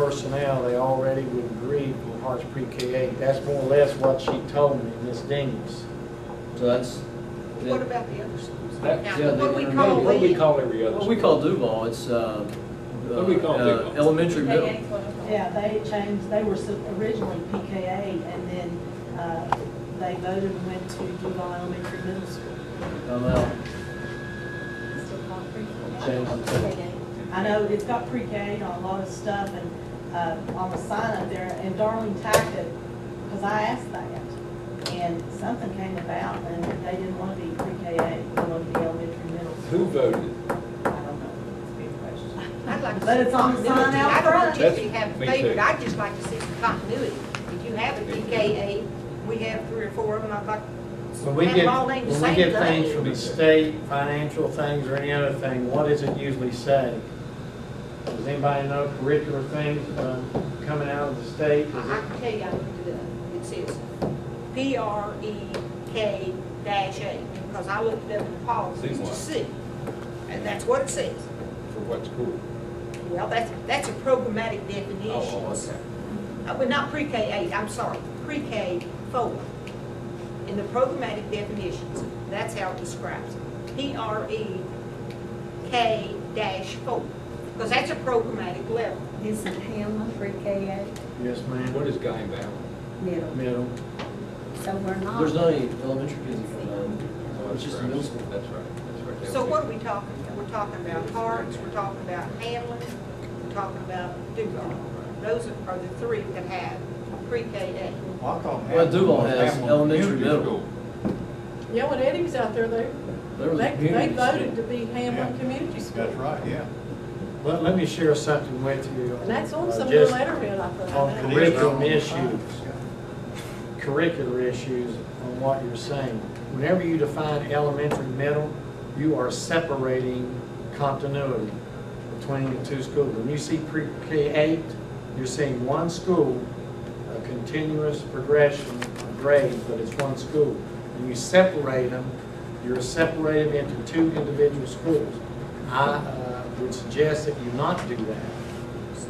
personnel, they already would agree with Harts Pre-K eight. That's more or less what she told me, Ms. Daniels. So that's, What about the other schools? That- Now, yeah, what they- we call What do we lead- call every other? what we call Duval, it's, uh, What do we call uh, Duval? Elementary, middle. Yeah, they changed, they were so- originally PKA, and then uh, they voted and went to Duval Elementary Middle School. I'm out. I know it's got pre-K on a lot of stuff, and uh, on the sign up there, and Darlene tacked it, because I asked that. And something came about, and they didn't want to be pre-KA, they wanted to be elementary middle. Who voted? I don't know, it's a big question. I'd like to But see it's on the sign continuity. out I don't want front. you to have a Me too. favorite, I'd just like to see some continuity. If you have a PKA, we have three or four of them, I'd like, When we Have get, all named the when we same get thing. things from the state, financial things or any other thing, what does it usually say? Does anybody know curricular things um, coming out of the state? Is I I it- can tell you, I looked it up. It says P R E K dash A, because I looked it up in the See policies what? to see. And that's what it says. For what school? Well, that's, that's a programmatic definition. Oh, okay. Uh, Well, not pre-K eight, I'm sorry, pre-K four. In the programmatic definitions, that's how it describes it. P R E K dash four, because that's a programmatic level. Isn't Hamlin free K Yes, ma'am, What is Guy Valley? eight middle? middle. So we're not. There's not any elementary kids in Duval, Oh, it's just the middle school. That's right, that's right. So what are we talking about? We're talking about Harts, we're talking about Hamlin, we're talking about Duval. Those are- are the three that have pre-K eight. Well, I thought Well, Duval Hamlin was has Hamlin elementary, Community middle. Yeah, when Eddie was out there, they, There was a they they community voted to school. be Yeah. Hamlin Community School. School. That's right, yeah. Let, let me share something with you. And that's on uh, some of the just letterhead, I thought. on It is Curriculum their own issues. time. curricular issues on what you're saying. Whenever you define elementary, middle, you are separating continuity between the two schools. When you see pre-K eight, you're seeing one school, a continuous progression of grades, but it's one school. When you separate them, you're separated into two individual schools. I uh, would suggest that you not do that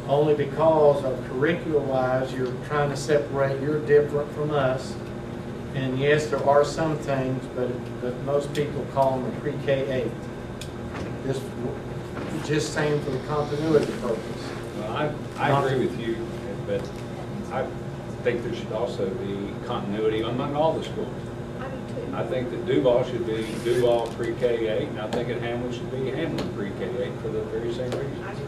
only because of curricular-wise, you're trying to separate, you're different from us. And yes, there are some things, but, but most people call them a pre-K eight. Just, just saying for the continuity purpose. Well, I, I agree with you, but I think there should also be continuity among all the schools. I do too. I think that Duval should be Duval pre-K eight, and I think that Hamlin should be Hamlin pre-K eight for the very same reason. I do too.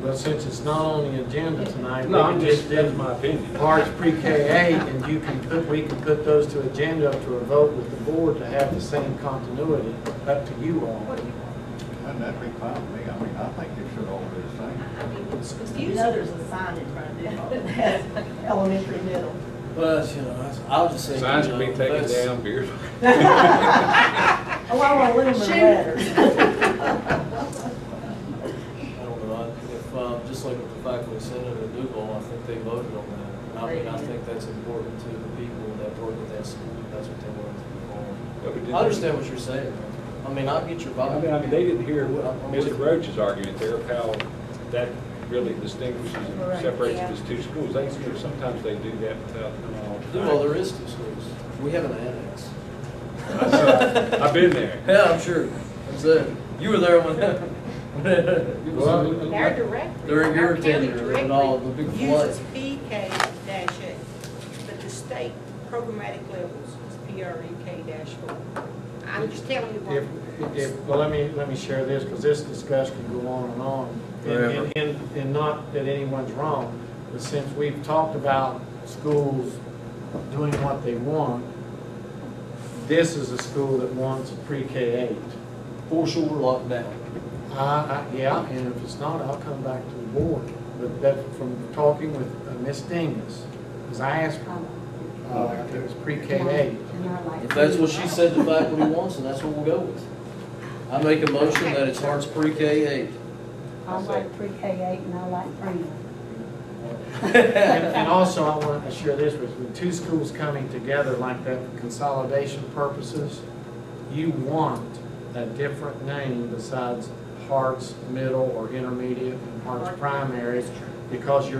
But since it's not on the agenda tonight, we No, I'm can just, just that's do my opinion. parts pre-K eight, and you can put, we can put those to agenda to a vote with the board to have the same continuity, up to you all. What do you want? And that'd be fine with me. I mean, I think it should all be the I- same. I mean, it's You confusing. know, there's a sign in front of it, that's elementary middle. Well, that's, you know, that's- I'll just say. Signs you can be know, taken that's- down, beers. Oh, I want aluminum letters. I don't know, I- if, uh, just like with the faculty senate at Duval, I think they voted on that. I mean, I think that's important to the people that work at that school, that's what they want to do. I understand what you're saying, I mean, I get your I vibe. mean, I mean, they didn't hear what I'm with you. Mr. Roach's argument there of how that really distinguishes and Right, separates yeah. these two schools. They, you know, sometimes they do that without knowing all the time. Duval, there is two schools, we have an annex. I've been there. Yeah, I'm sure, I'm saying, you were there when, when- Their directory. They're our county irritated at all, the big directory flood. Uses PK dash A, but the state programmatic levels is PREK dash four. I'm just telling you If, what. if, well, let me, let me share this, because this discussion can go on and on. And- And, and, and not that anyone's wrong, but since we've talked about schools doing what they want, this is a school that wants pre-K eight. for sure we're locked down. I, I, yeah, and if it's not, I'll come back to the board, but that, from talking with uh, Ms. Dingus, because I asked her, uh, if it was pre-K eight. If that's what she said the faculty wants, then that's what we'll go with. I make a motion that it's Harts pre-K eight. I like pre K eight and I like Freeman. And and also, I want to share this with, with two schools coming together like that for consolidation purposes, you want a different name besides Harts Middle or Intermediate and Harts Primary, because you're